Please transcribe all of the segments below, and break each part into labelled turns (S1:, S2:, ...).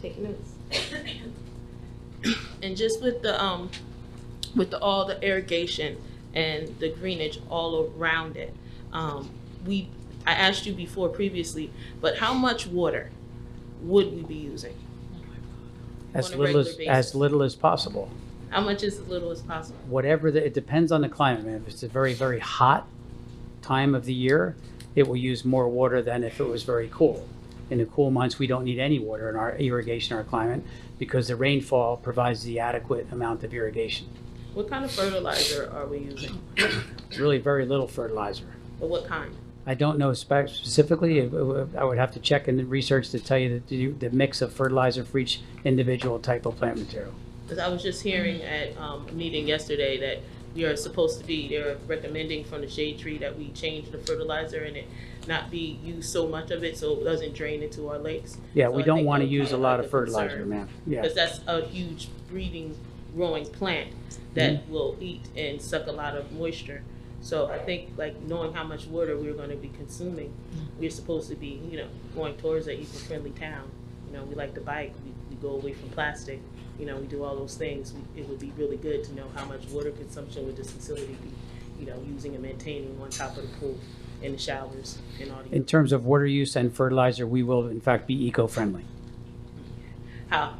S1: take notes.
S2: And just with the, um, with the, all the irrigation and the greenage all around it, um, we, I asked you before previously, but how much water would we be using?
S3: As
S2: On a
S3: little
S2: regular
S3: as,
S2: basis.
S3: as little as possible.
S2: How much is as little as possible?
S3: Whatever, the- it depends on the climate, man. If it's a very, very hot time of the year, it will use more water than if it was very cool. In the cool months, we don't need any water in our irrigation, our climate, because the rainfall provides the adequate amount of irrigation.
S2: What kind of fertilizer are we using?
S3: Really very little fertilizer.
S2: Or what kind?
S3: I don't know spec- specifically, It- it- I would have to check and research to tell you the, the mix of fertilizer for each individual type of plant material.
S2: Because I was just hearing at um, a meeting yesterday that we are supposed to be, they're recommending from the shade tree that we change the fertilizer and it not be use so much of it so it doesn't drain into our lakes.
S3: Yeah,
S2: So
S3: we
S2: I
S3: don't
S2: think
S3: want to
S2: that
S3: use a
S2: would
S3: lot
S2: be
S3: of
S2: a concern.
S3: fertilizer, man. Yeah,
S2: Because that's a huge breeding, growing plant that will eat and suck a lot of moisture. So I think like knowing how much water we're gonna be consuming, we're supposed to be, you know, going towards an eco-friendly town. You know, we like to bike, we, we go away from plastic, you know, we do all those things. We- It would be really good to know how much water consumption would this facility be, you know, using and maintaining on top of the pool and the showers and all
S3: in
S2: the,
S3: terms of water use and fertilizer, we will in fact be eco-friendly
S2: how,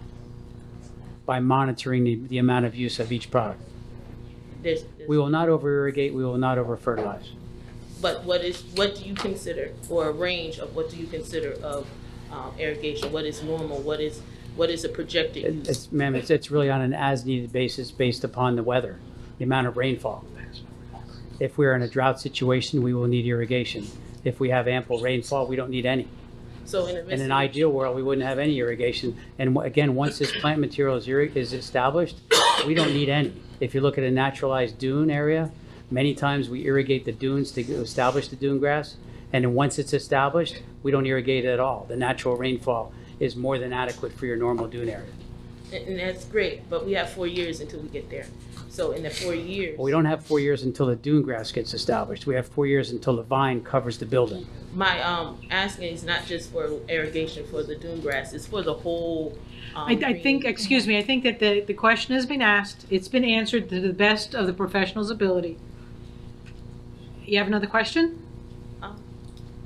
S3: by monitoring the, the amount of use of each product.
S2: there's.
S3: We will not over-irrigate, we will not over-fertilize.
S2: But what is, what do you consider, or a range of what do you consider of um, irrigation? What is normal? What is, what is a projected
S3: It-
S2: use?
S3: It's, ma'am, it's, it's really on an as-needed basis based upon the weather, the amount of rainfall. If we're in a drought situation, we will need irrigation. If we have ample rainfall, we don't need any.
S2: So in a
S3: In an
S2: midst,
S3: ideal world, we wouldn't have any irrigation. And wh- again, once this plant material is irri- is established, we don't need any. If you look at a naturalized dune area, many times we irrigate the dunes to establish the dune grass. And then once it's established, we don't irrigate it at all. The natural rainfall is more than adequate for your normal dune area.
S2: and and that's great, but we have four years until we get there. So in the four years,
S3: But we don't have four years until the dune grass gets established. We have four years until the vine covers the building.
S2: my um, asking is not just for irrigation for the dune grass, it's for the whole. um,
S4: I, I think,
S2: green-
S4: excuse me, I think that the, the question has been asked, it's been answered to the best of the professional's ability. You have another question?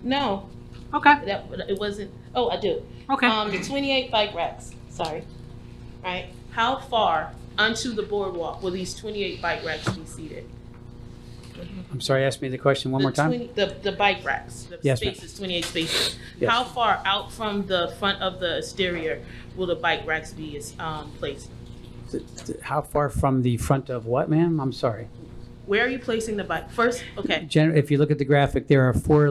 S2: No,
S4: Okay,
S2: that, it wasn't, oh, I do.
S4: okay.
S2: Um, the twenty-eight bike racks, sorry, right? How far onto the boardwalk will these twenty-eight bike racks be seated?
S3: I'm sorry, ask me the question one
S2: The
S3: more time?
S2: 20 The, the bike racks, the
S3: Yes, ma'am.
S2: spaces, twenty-eight spaces.
S3: Yes.
S2: How far out from the front of the exterior will the bike racks be, is, um, placed?
S3: Th- th- How far from the front of what, ma'am? I'm sorry.
S2: Where are you placing the bike? First, okay.
S3: Gen- if you look at the graphic, there are four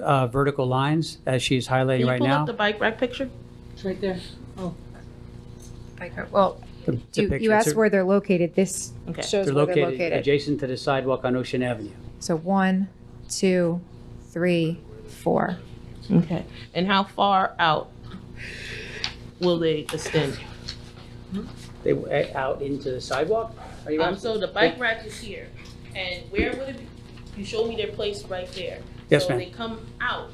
S3: uh, vertical lines as she's
S2: Can
S3: highlighting
S2: you
S3: right
S2: pull up the
S3: now.
S2: bike rack picture?
S4: It's right there.
S5: Micro- Well,
S3: It's a
S5: you, you
S3: picture. It's
S5: asked
S3: a-
S5: where they're located. This
S2: Okay.
S5: shows
S3: They're
S5: where they're
S3: located
S5: located.
S3: adjacent to the sidewalk on Ocean Avenue.
S5: So one, two, three, four.
S3: Mm-hmm.
S2: Okay. And how far out will they extend?
S3: They were a- out into the sidewalk? Are you
S2: Um,
S3: asking?
S2: so the bike rack is here, and where would it be? You showed me their place right there.
S3: Yes,
S2: So
S3: ma'am.
S2: they come out,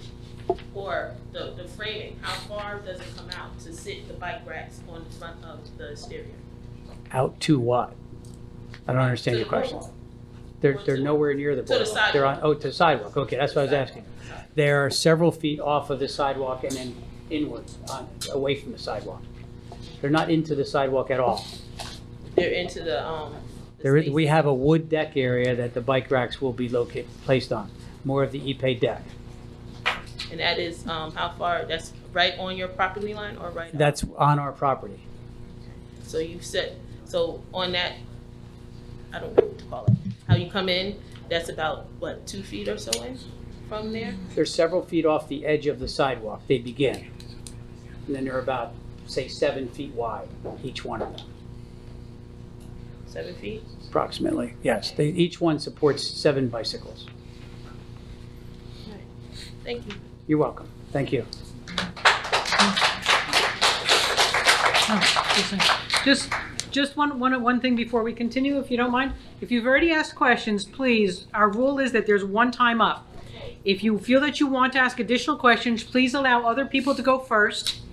S2: or the, the framing, how far does it come out to sit the bike racks on the front of the exterior?
S3: Out to what? I don't understand
S2: To
S3: your
S2: the
S3: question.
S2: boardwalk.
S3: They're,
S2: Or
S3: they're
S2: to-
S3: nowhere near the
S2: to the
S3: boardwalk. They're on,
S2: sidewalk.
S3: oh, to the sidewalk, okay, that's what I was asking. They are several feet off of the sidewalk and then inward, on- away from the sidewalk. They're not into the sidewalk at all.
S2: They're into the, um. the
S3: There is,
S2: space.
S3: we have a wood deck area that the bike racks will be located, placed on, more of the Ipe deck.
S2: And that is, um, how far, that's right on your property line or right? out?
S3: That's on our property.
S2: So you set, so on that, I don't know what to call it, how you come in, that's about, what, two feet or so in from there?
S3: They're several feet off the edge of the sidewalk, they begin. And then they're about, say, seven feet wide, each one of them,
S2: Seven feet?
S3: approximately. Yes, they, each one supports seven bicycles.
S2: Thank you.
S3: You're welcome, thank you.
S4: Oh, just a second. Just, just one, one, one thing before we continue, if you don't mind. If you've already asked questions, please, our rule is that there's one time up. If you feel that you want to ask additional questions, please allow other people to go first.